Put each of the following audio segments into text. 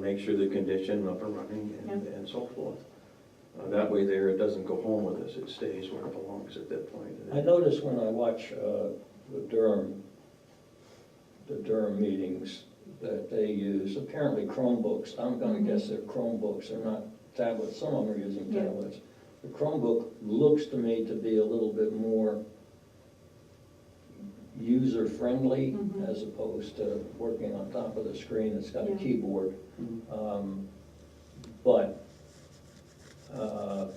make sure the condition up and running and, and so forth. Uh, That way there, it doesn't go home with us, it stays where it belongs at that point. I notice when I watch uh, the Durham, the Durham meetings, that they use apparently Chromebooks. I'm gonna guess they're Chromebooks, they're not tablets, some of them are using Yeah. tablets. The Chromebook looks to me to be a little bit more user-friendly Mhm. as opposed to working on top of the screen that's got a Yeah. keyboard. Mhm. Um, But uh,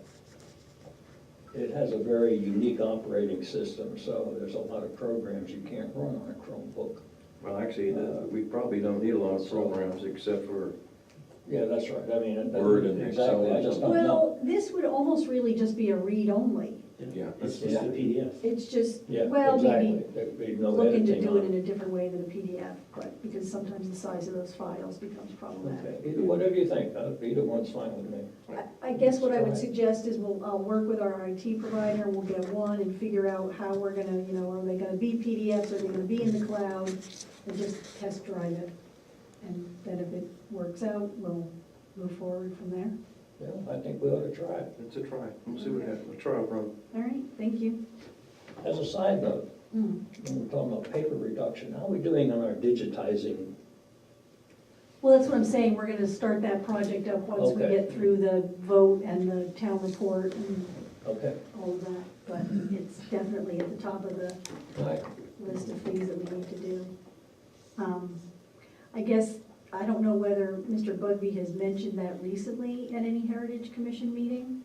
it has a very unique operating system, so there's a lot of programs you can't run on a Chromebook. Well, actually, the- we probably don't need a lot of programs except for, Yeah, that's right, I mean. it- Word and Excel Exactly, I or just don't know. Well, this would almost really just be a read-only. yeah. It's that's- just a PDF. It's just, Yeah, well, maybe exactly. There'd be no looking to editing do it on in a different way than a PDF, but, because sometimes the size of those files becomes problematic. Okay, Either, whatever you think, uh, either one's fine with me. I- I guess what I would Right. suggest is we'll, I'll work with our IT provider, we'll get one and figure out how we're gonna, you know, are they gonna be PDFs, are they gonna be in the cloud? And just test drive it, and then if it works out, we'll move forward from there. Yeah, I think we ought to try it. It's a try, we'll see what happens, a trial run. All right, thank you. As a side note, Mm. when we're talking about paper reduction, how are we doing on our digitizing? Well, that's what I'm saying, we're gonna start that project up once we Okay. get through the vote and the town report and Okay, all of that, but it's definitely at the top of the all right. list of things that we need to do. Um, I guess, I don't know whether Mr. Bugby has mentioned that recently at any Heritage Commission meeting.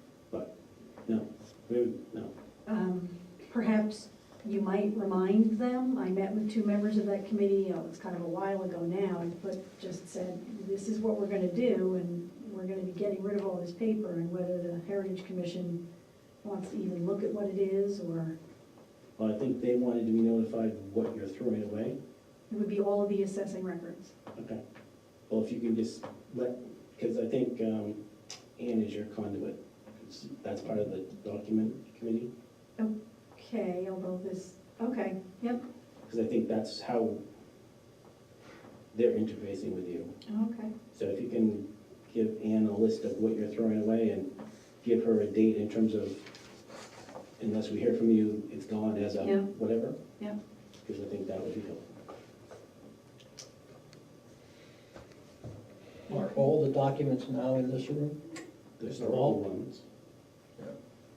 No, we, no. Um, Perhaps you might remind them, I met with two members of that committee, oh, it's kind of a while ago now, but just said, this is what we're gonna do, and we're gonna be getting rid of all this paper, and whether the Heritage Commission wants to even look at what it is, or Well, I think they wanted to be notified what you're throwing away. it would be all of the assessing records. Okay. Well, if you can just let, because I think um, Ann is your conduit. It's- That's part of the document committee. Okay, although this, okay, yep, Because I think that's how they're interfacing with you. okay. So if you can give Ann a list of what you're throwing away and give her a date in terms of, unless we hear from you, it's gone as of Yeah. whatever. Yeah. Because I think that would be helpful. Are all the documents now in this room? There's The the old vault? ones.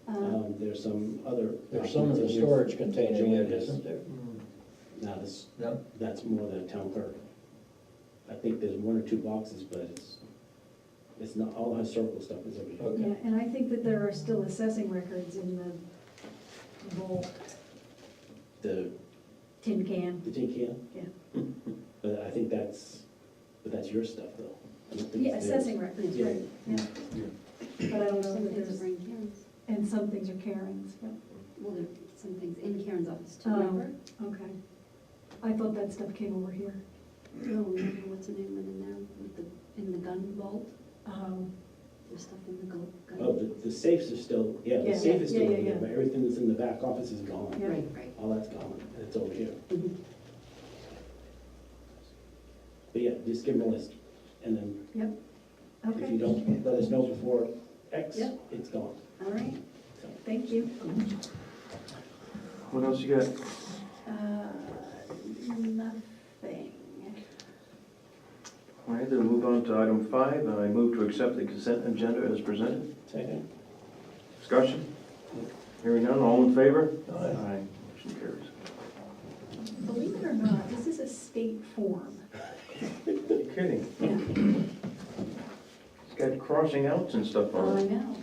Uh, Um, There's some other. There's some of the documents in here. storage containers in it, Joiners. isn't there? No, this, No? that's more than a town clerk. I think there's one or two boxes, but it's, it's not, all the historical stuff is over here. Okay. Yeah, and I think that there are still assessing records in the vault, The, tin can. the tin can? Yeah. But I think that's, but that's your stuff though. I don't think Yeah, it's theirs. assessing records, Yeah. right, yeah. But I don't know Oh, Some that things there's, are in Karen's, and some things are Karen's, yeah, well, there are some things in Karen's office too, Oh. remember? okay. I thought that stuff came over here. No, Oh, remember what's her name went in there with the, in the gun vault, Um, there's stuff in the gu- Oh, gun. the, the safes are still, yeah, Yeah. the safe is Yeah, still yeah, in there, yeah. but everything that's in the back office is gone. Yeah. Right, right. All that's gone, and it's over here. Mm-hmm. Mhm. But yeah, just give them a list, and then If you Okay, don't let us know before X, Yeah. it's gone. all right, thank you. What else you got? Uh, Nothing. All right, then move on to item five, and I move to accept the consent agenda as presented. Second. Discussion? Hearing none, all in favor? Aye. Motion carries. Believe it or not, this is a state form. You're kidding. Yeah, It's got crossing outs and stuff Oh, I on it. know.